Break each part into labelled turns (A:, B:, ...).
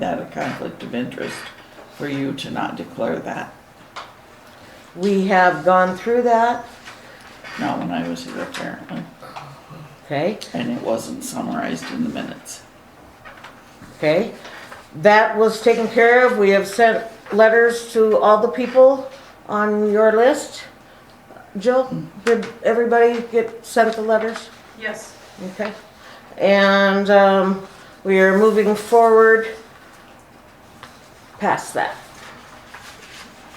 A: that a conflict of interest for you to not declare that?
B: We have gone through that,
A: Not when I was here apparently,
B: okay,
A: and it wasn't summarized in the minutes.
B: okay. That was taken care of. We have sent letters to all the people on your list. Jill, did everybody get sent the letters?
C: Yes.
B: Okay. And um, we are moving forward past that.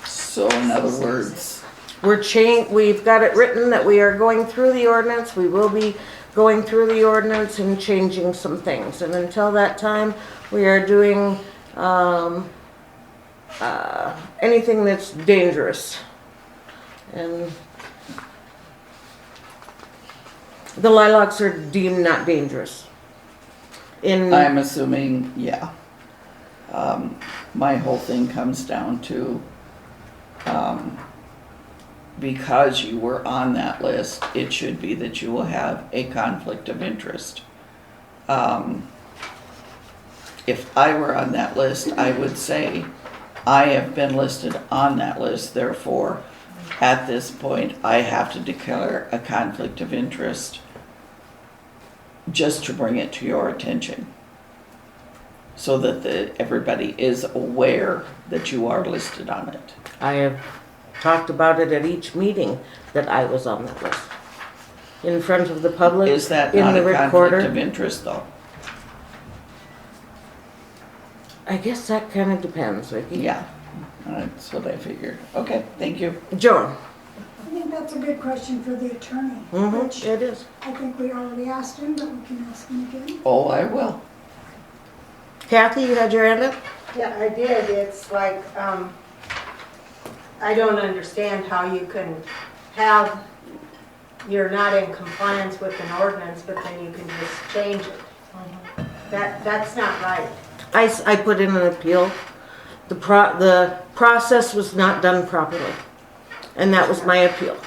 A: So in other words,
B: We're chang, we've got it written that we are going through the ordinance, we will be going through the ordinance and changing some things. And until that time, we are doing, um, uh, anything that's dangerous. And the lilacs are deemed not dangerous. In,
A: I'm assuming, yeah. Um, my whole thing comes down to, um, because you were on that list, it should be that you will have a conflict of interest. Um, if I were on that list, I would say, I have been listed on that list, therefore, at this point, I have to declare a conflict of interest just to bring it to your attention. So that the, everybody is aware that you are listed on it.
B: I have talked about it at each meeting that I was on that list. In front of the public, in the
A: Is
B: recorder.
A: that not a conflict of interest though?
B: I guess that kind of depends, Vicki.
A: Yeah, that's what I figured. Okay, thank you.
B: Joan?
D: I think that's a good question for the attorney,
B: Mm-hmm.
D: which
B: It is.
D: I think we already asked him, but we can ask him again.
A: Oh, I will.
B: Kathy, you had your hand up?
E: Yeah, I did. It's like, um, I don't understand how you can have, you're not in compliance with an ordinance, but then you can just change it. That, that's not right.
B: I, s- I put in an appeal. The pro, the process was not done properly. And that was my appeal.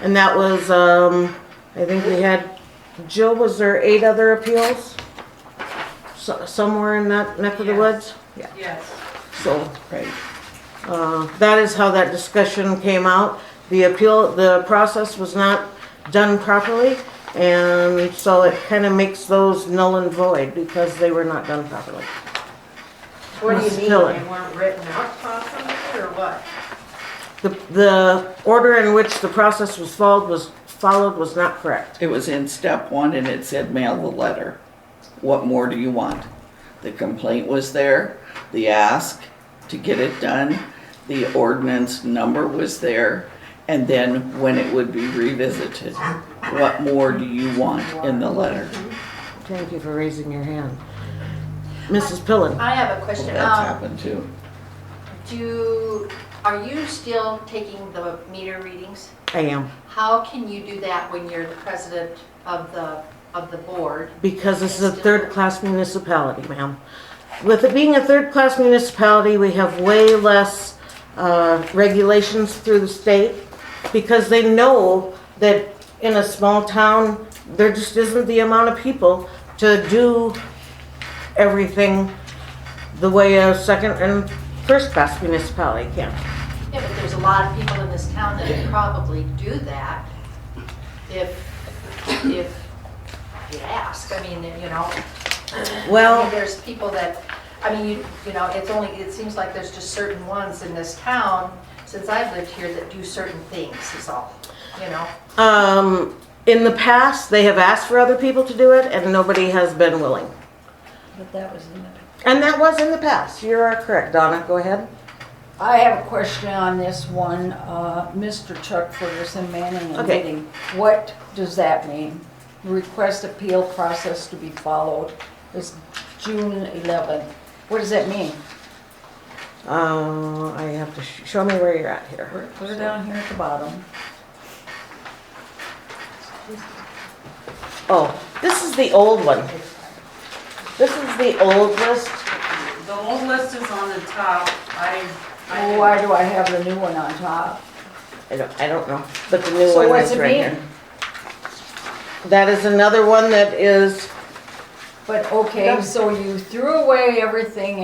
B: And that was, um, I think we had, Jill, was there eight other appeals? So, somewhere in that neck of the
C: Yes.
B: woods? Yeah.
C: Yes.
B: So,
A: Right.
B: Uh, That is how that discussion came out. The appeal, the process was not done properly, and so it kind of makes those null and void because they were not done properly.
E: What do you mean,
B: Still it.
E: they weren't written up properly, or what?
B: The, the order in which the process was followed was, followed was not correct.
A: It was in step one and it said mail the letter. What more do you want? The complaint was there, the ask to get it done, the ordinance number was there, and then when it would be revisited. What more do you want in the letter?
B: Thank you for raising your hand. Mrs. Pillen?
F: I have a
A: Well,
F: question.
A: That's
F: Um,
A: happened too.
F: do, are you still taking the meter readings?
B: I am,
F: How can you do that when you're the president of the, of the board?
B: because this is a third-class municipality, ma'am. With it being a third-class municipality, we have way less uh, regulations through the state because they know that in a small town, there just isn't the amount of people to do everything the way a second and first-class municipality can.
F: Yeah, but there's a lot of people in this town that could probably do that if, if you ask. I mean, you know, I mean,
B: Well,
F: there's people that, I mean, you, you know, it's only, it seems like there's just certain ones in this town, since I've lived here, that do certain things is all, you know?
B: um, in the past, they have asked for other people to do it and nobody has been willing.
G: But that was in the.
B: And that was in the past. You are correct, Donna. Go ahead.
G: I have a question on this one, uh, Mr. Chuck Ferguson, Manning and
B: Okay.
G: Meeting. What does that mean? Request appeal process to be followed is June eleventh. What does that mean?
B: Uh, I have to sh- show me where you're at here.
G: Put it down here at the bottom.
B: Oh, this is the old one. This is the old list.
C: The old list is on the top. I, I.
G: Why do I have the new one on top?
B: I don't, I don't know, but the new
G: So
B: one
G: what's
B: is
G: it
B: right
G: mean?
B: here. That is another one that is
G: But okay, so you threw away everything